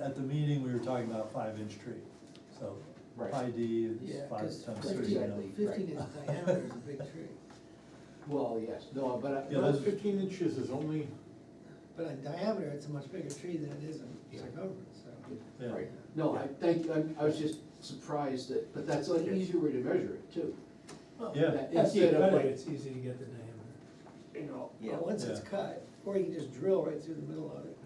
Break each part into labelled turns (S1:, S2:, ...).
S1: at the meeting, we were talking about five-inch tree, so
S2: Right.
S1: pi D
S3: Yeah,
S1: is five
S3: cause
S1: times
S2: fifty-
S1: three, you know.
S3: fifteen, fifteen is diameter is a big tree,
S2: Well, yes, no, but, I-
S1: Yeah,
S2: but
S1: that's-
S2: fifteen inches is only,
S3: but in diameter, it's a much bigger tree than it is in
S2: Yeah.
S3: circumference, so.
S1: Yeah.
S2: right, no, I, thank you, I, I was just surprised that, but that's an easier way to measure it too.
S1: Yeah,
S2: That
S4: After you
S2: Instead
S4: cut
S2: of
S4: it,
S2: like,
S4: it's easy to get the diameter.
S3: You know,
S5: Yeah.
S2: oh,
S3: but once it's
S1: Yeah.
S3: cut, or you can just drill right through the middle of it.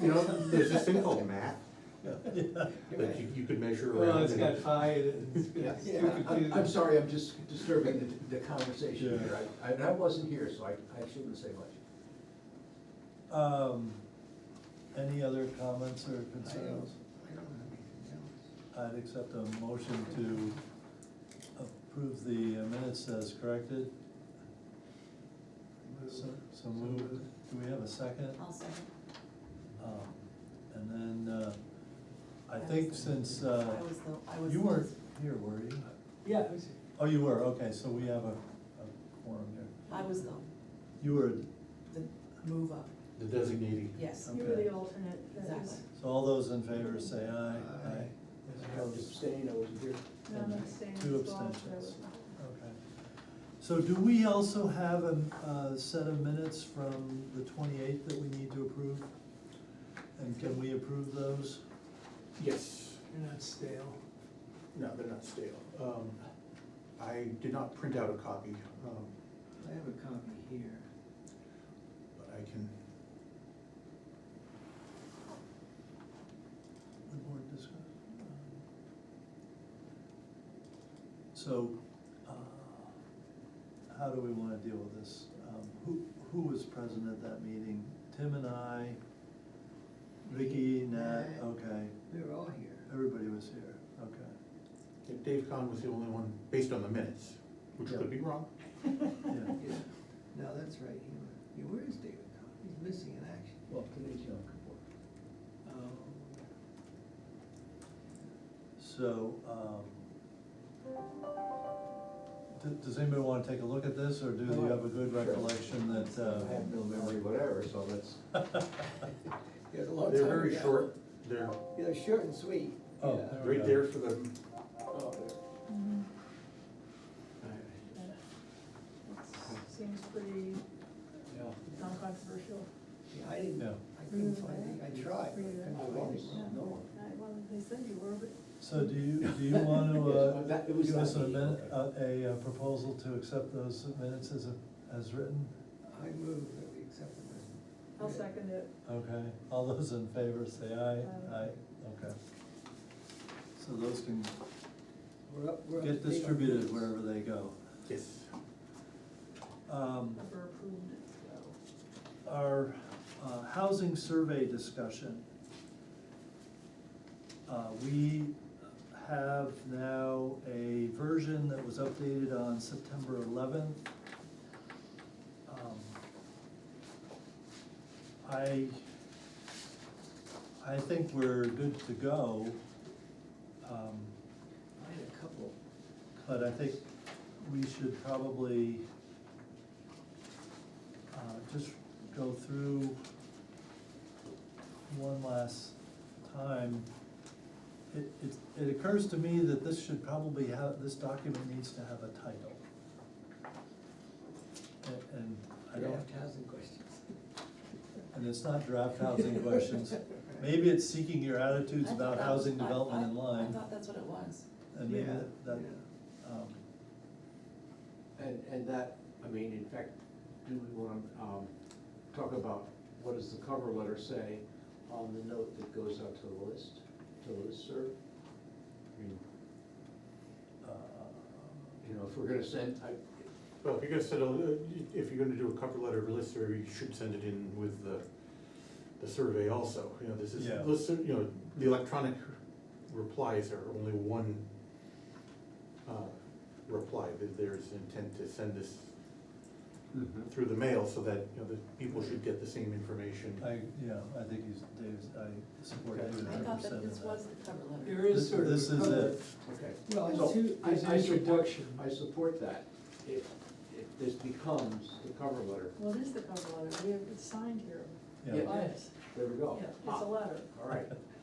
S6: You know, there's this thing called math,
S3: You're
S6: that
S3: right.
S6: you, you could measure around.
S4: Well, it's
S6: and-
S4: got high, and it's
S2: yeah,
S4: got
S2: I-
S4: stupid
S2: I'm, I'm
S4: too.
S2: sorry, I'm just disturbing the, the conversation
S1: Yeah.
S2: here, I, I- and I wasn't here, so I, I shouldn't say much.
S1: Um, any other comments or
S3: I don't,
S1: concerns?
S3: I don't have anything else.
S1: I'd accept a motion to approve the minutes as corrected, so, so moved. Do we have a second?
S5: I'll second.
S1: Um, And then, uh, I
S5: I
S1: think
S5: was-
S1: since, uh,
S5: I was the, I was.
S1: you weren't here, were you?
S4: Yeah, I see.
S1: Oh, you were, okay, so we have a, a quorum here.
S5: I was the,
S1: You were,
S5: the move up,
S6: The designating.
S5: yes,
S7: You were the
S1: Okay.
S7: alternate, that
S5: exactly.
S7: was,
S1: so all those in favor say aye,
S3: Aye.
S1: aye. Those opposed?
S2: Abstain, I wasn't here.
S7: no, I'm abstaining
S1: Two
S7: as well, so I was
S1: abstentions.
S7: not.
S1: Okay. So do we also have a, a set of minutes from the twenty-eighth that we need to approve? And can we approve those?
S6: Yes,
S4: You're not stale.
S6: no, they're not stale. Um, I did not print out a copy, um,
S3: I have a copy here.
S6: but I can,
S1: The board discuss- um, So, uh, how do we wanna deal with this? Um, Who, who was present at that meeting? Tim and I, Vicky, Nat,
S3: Nat.
S1: okay,
S3: We were all here.
S1: everybody was here, okay.
S6: Dave Kahn was the only one, based on the minutes, which
S1: Yeah.
S6: could be wrong.
S1: Yeah.
S3: Yeah, no, that's right, he was, yeah, where is David now? He's missing in action.
S2: Well, today's Yom Kippur.
S3: Oh.
S1: So, um, d- does anybody wanna take a look at this, or do you have a good
S2: Sure.
S1: recollection that, uh?
S2: I have no memory whatever, so that's,
S3: It was a
S4: Oh,
S3: long time
S6: They're very
S3: ago.
S6: short, they're
S3: Yeah, they're short and sweet.
S1: Oh,
S3: yeah.
S1: there we
S6: right
S1: go.
S6: there for the,
S3: Oh, there.
S7: Mhm.
S6: I-
S7: That Seems pretty non-controversial.
S3: Yeah, I didn't,
S1: Yeah.
S3: I couldn't
S7: Mm-hmm.
S3: find it, I tried, but I couldn't
S2: I
S3: find
S2: was,
S3: it.
S6: no one.
S7: I- Uh, Well, they said you were, but
S1: So do you, do you wanna, uh,
S2: Yes, that- it was
S1: give us
S2: that
S1: a
S2: meeting,
S1: minute, uh, a, a proposal to accept those minutes as, as written?
S3: I moved that we accepted it.
S7: I'll second it.
S1: Okay, all those in favor say aye,
S7: Aye.
S1: aye, okay. So those can
S3: We're up, we're up. to
S1: get
S3: date on
S1: distributed
S3: this.
S1: wherever they go.
S6: yes.
S1: Um,
S7: Never approved it, so.
S1: our uh, housing survey discussion. Uh, We have now a version that was updated on September eleventh. Um, I, I think we're good to go. Um,
S3: I had a couple.
S1: but I think we should probably uh, just go through one last time. It, it, it occurs to me that this should probably have, this document needs to have a title. A- And I don't,
S3: Draft housing questions.
S1: and it's not draft housing questions. Maybe it's seeking your attitudes
S5: I thought
S1: about
S5: that was-
S1: housing
S5: I-
S1: development
S5: I-
S1: in
S5: I
S1: line,
S5: thought that's what it was.
S1: and maybe
S3: Yeah,
S1: that- that,
S3: yeah.
S1: um,
S2: And, and that, I mean, in fact, do we wanna, um, talk about what does the cover letter say on the note that goes out to the list, to the listserv? I mean,
S1: uh,
S2: You know, if we're gonna send, I,
S6: Well, if you're gonna send a, uh, if you're gonna do a cover letter or list survey, you should send it in with the, the survey also, you know, this is,
S1: Yeah.
S6: list, sur- you know, the electronic replies are only one uh, reply, There- there's intent to send this through the mail so that, you know, the people should get the same information.
S1: I, yeah, I think he's, Dave's, I support
S6: Okay.
S1: David
S5: I
S1: hundred
S5: thought
S1: percent
S5: that
S1: of
S5: this was
S1: that.
S5: the cover letter.
S4: There is
S1: This-
S4: sort of.
S1: this
S4: a
S1: is
S4: cover.
S1: it.
S2: okay.
S4: Well, and
S2: So,
S4: two-
S2: I-
S4: there's
S2: I support-
S4: introduction.
S2: I support that, if, if this becomes the cover letter,
S7: Well, it is the cover letter, we have, it's signed here
S1: Yeah,
S2: Yeah.
S7: by us.
S2: there we go.
S7: Yeah, it's
S2: Ah,
S7: a letter.
S2: All right,